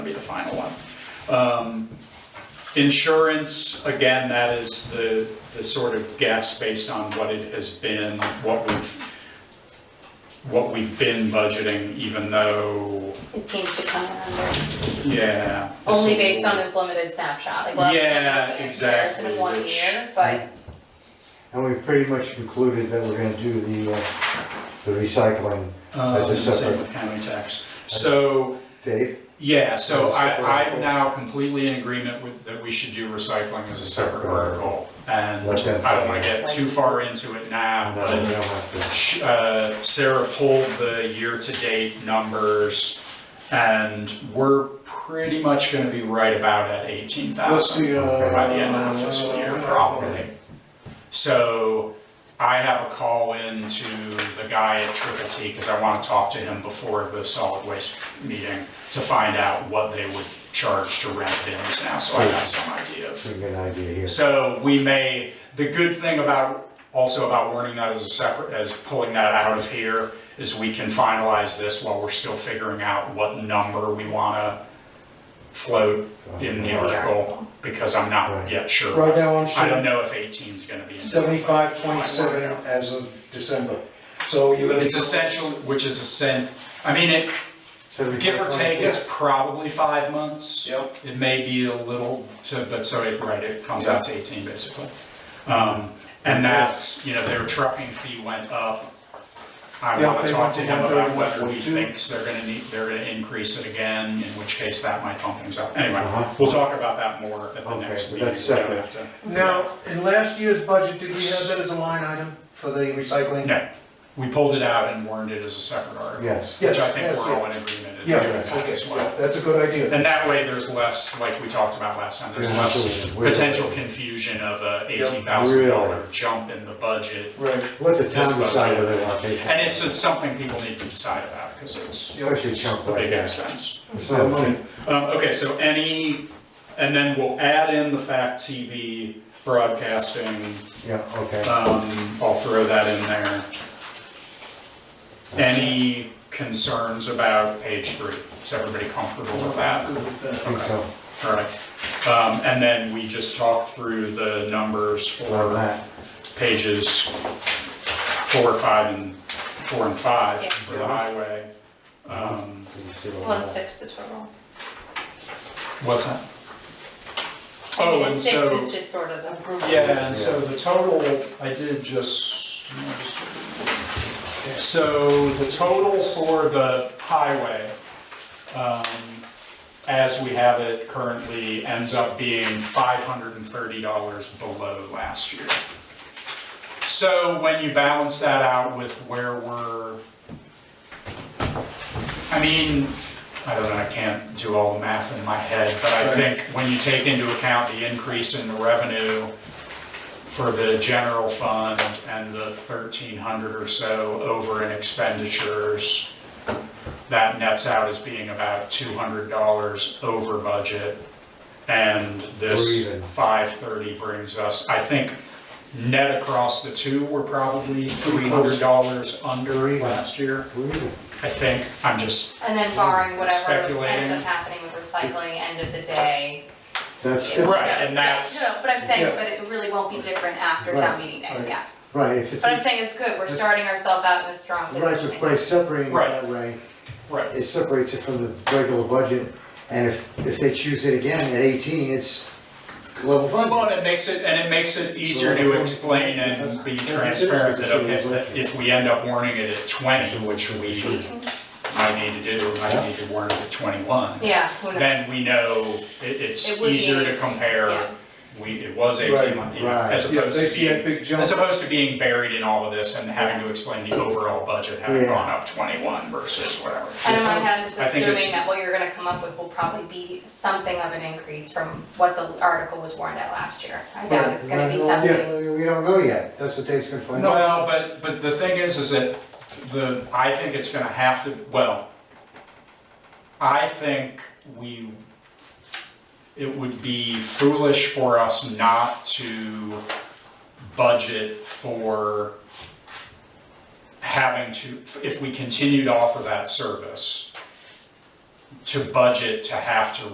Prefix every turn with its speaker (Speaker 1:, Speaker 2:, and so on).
Speaker 1: be the final one. Um, Insurance, again, that is the, the sort of guess based on what it has been, what we've, what we've been budgeting, even though,
Speaker 2: It seems to come under,
Speaker 1: yeah. it's
Speaker 2: only
Speaker 1: a
Speaker 2: based on
Speaker 1: little-
Speaker 2: this limited snapshot, like, well,
Speaker 1: Yeah, exactly,
Speaker 2: in one
Speaker 1: which-
Speaker 2: year, but
Speaker 3: And we pretty much concluded that we're gonna do the, uh, the recycling,
Speaker 1: um,
Speaker 3: As a
Speaker 1: same
Speaker 3: separate-
Speaker 1: with County tax. So,
Speaker 3: Dave?
Speaker 1: yeah, so
Speaker 3: As a
Speaker 1: I,
Speaker 3: separate
Speaker 1: I'm
Speaker 3: article.
Speaker 1: now completely in agreement with, that we should do recycling as a separate article. And
Speaker 3: Let them
Speaker 1: I don't wanna
Speaker 3: figure
Speaker 1: get too far into it now,
Speaker 3: No,
Speaker 1: but
Speaker 3: we don't have
Speaker 1: Sh- uh, Sarah pulled the year-to-date numbers, and we're pretty much gonna be right about at eighteen
Speaker 4: That's
Speaker 1: thousand
Speaker 4: the, uh.
Speaker 1: by the end of the fiscal year, probably. So I have a call in to the guy at Triple T, because I wanna talk to him before the solid waste meeting to find out what they would charge to rent bins now, so I have some idea of
Speaker 3: to, we get an idea here.
Speaker 1: so we may, the good thing about, also about warning that as a separate, as pulling that out of here, is we can finalize this while we're still figuring out what number we wanna float in the article, because I'm not yet
Speaker 4: Right
Speaker 1: sure.
Speaker 4: now, I'm
Speaker 1: I don't
Speaker 4: showing
Speaker 1: know if 18 is gonna be. in there.
Speaker 4: seventy-five, twenty-seven as of December, so you're gonna.
Speaker 1: It's essential, which is a sen, I mean, it, give or take, it's probably five months.
Speaker 4: Yep.
Speaker 1: It may be a little, so- but so it, right, it comes out to eighteen basically. Um, and that's, you know, their trucking fee went up. I
Speaker 4: Yeah,
Speaker 1: wanna
Speaker 4: they
Speaker 1: talk
Speaker 4: went
Speaker 1: to
Speaker 4: to
Speaker 1: him about
Speaker 4: 131,
Speaker 1: whether he
Speaker 4: 42.
Speaker 1: thinks they're gonna need, they're gonna increase it again, in which case that might pump things up. Anyway,
Speaker 3: Uh-huh.
Speaker 1: we'll talk about that more at the
Speaker 3: Okay,
Speaker 1: next
Speaker 3: but
Speaker 1: meeting.
Speaker 3: that's
Speaker 1: We don't
Speaker 3: separate.
Speaker 1: have to-
Speaker 4: Now, in last year's budget, did we have that as a line item for the recycling?
Speaker 1: No, we pulled it out and warned it as a separate article,
Speaker 3: Yes,
Speaker 1: which I
Speaker 4: Yes,
Speaker 1: think
Speaker 4: yes,
Speaker 1: we're
Speaker 4: yeah.
Speaker 1: all in agreement in
Speaker 4: Yeah,
Speaker 1: that
Speaker 4: okay,
Speaker 1: as well.
Speaker 4: yeah, that's a good idea.
Speaker 1: And that way, there's less, like we talked about last time, there's
Speaker 3: Yeah,
Speaker 1: less
Speaker 3: absolutely.
Speaker 1: potential confusion of a
Speaker 4: Yeah.
Speaker 1: eighteen thousand dollar
Speaker 3: Really.
Speaker 1: jump in the budget.
Speaker 4: Right.
Speaker 3: let the town
Speaker 1: This budget.
Speaker 3: decide whether they wanna take it.
Speaker 1: And it's it's something people need to decide about, because it's
Speaker 3: Especially a chunk
Speaker 1: a
Speaker 3: like
Speaker 1: big
Speaker 3: that. Oh,
Speaker 1: expense.
Speaker 3: It's not money.
Speaker 1: Um, okay, so any, and then we'll add in the fact TV broadcasting,
Speaker 3: Yeah, okay.
Speaker 1: um, I'll throw that in there. Any concerns about page three? Is everybody comfortable with that?
Speaker 4: Good with that.
Speaker 3: I think so,
Speaker 1: All right, um, and then we just talked through the numbers
Speaker 3: on
Speaker 1: for
Speaker 3: that.
Speaker 1: pages four, five, and, four and five
Speaker 2: Yeah.
Speaker 1: for the highway. Um,
Speaker 3: Please do all
Speaker 2: one
Speaker 3: that.
Speaker 2: sixth the total.
Speaker 1: what's that? Oh, and so,
Speaker 2: Six is just sort of the approval.
Speaker 1: yeah, and so the total, I did just, I just- so the total for the highway, um, as we have it currently, ends up being five hundred and thirty dollars below last year. So when you balance that out with where we're, I mean, I don't know, I can't do all the math in my head, but I think when you take into account the increase in the revenue for the general fund and the thirteen hundred or so over in expenditures, that nets out as being about two hundred dollars over budget. And
Speaker 3: We're
Speaker 1: this
Speaker 3: even.
Speaker 1: five thirty brings us, I think, net across the two, we're probably three hundred dollars under
Speaker 3: Pretty close.
Speaker 1: last year.
Speaker 3: Really?
Speaker 1: I think, I'm just,
Speaker 2: And then barring whatever ends
Speaker 1: Mm-hmm. Speculating.
Speaker 2: up happening with recycling, end of the day.
Speaker 3: That's,
Speaker 2: it's-
Speaker 3: it.
Speaker 1: Right,
Speaker 2: no,
Speaker 1: and
Speaker 2: it's-
Speaker 1: that's-
Speaker 2: No, no, but I'm
Speaker 4: Yeah.
Speaker 2: saying, but it really won't be different after
Speaker 3: Right,
Speaker 2: town meeting day,
Speaker 4: right.
Speaker 2: yeah.
Speaker 3: right, if it's,
Speaker 2: But I'm
Speaker 3: right,
Speaker 2: saying it's good, we're starting ourselves out in a strong position.
Speaker 3: but by separating it
Speaker 1: Right.
Speaker 3: that way,
Speaker 1: right,
Speaker 3: it separates it from the regular budget. And if, if they choose it again at eighteen, it's level funded.
Speaker 1: well, and it makes it, and it makes it easier to explain and be transparent that, okay, that if we end up warning it at twenty, which we might need to do, we might need to warn it at twenty-one,
Speaker 2: Yeah, who knows?
Speaker 1: then we know it,
Speaker 2: It
Speaker 1: it's
Speaker 2: would be
Speaker 1: easier to
Speaker 2: eighteen, yeah.
Speaker 1: compare. We, it was eighteen,
Speaker 4: Right,
Speaker 1: you know, as
Speaker 3: right.
Speaker 4: Yeah,
Speaker 1: opposed
Speaker 4: they
Speaker 1: to
Speaker 4: see that
Speaker 1: being,
Speaker 4: big jump.
Speaker 1: as opposed to being buried in all of this and having to explain the overall budget having
Speaker 3: Yeah.
Speaker 1: gone up twenty-one versus whatever.
Speaker 2: And in my head, I'm just
Speaker 1: I think it's-
Speaker 2: assuming that what you're gonna come up with will probably be something of an increase from what the article was warned at last year. I doubt it's gonna be
Speaker 3: Well,
Speaker 2: something.
Speaker 3: We don't know yet, that's what Dave's gonna find out.
Speaker 1: Well, but, but the thing is, is that the, I think it's gonna have to, well, I think we, it would be foolish for us not to budget for having to, if we continue to offer that service, to budget to have to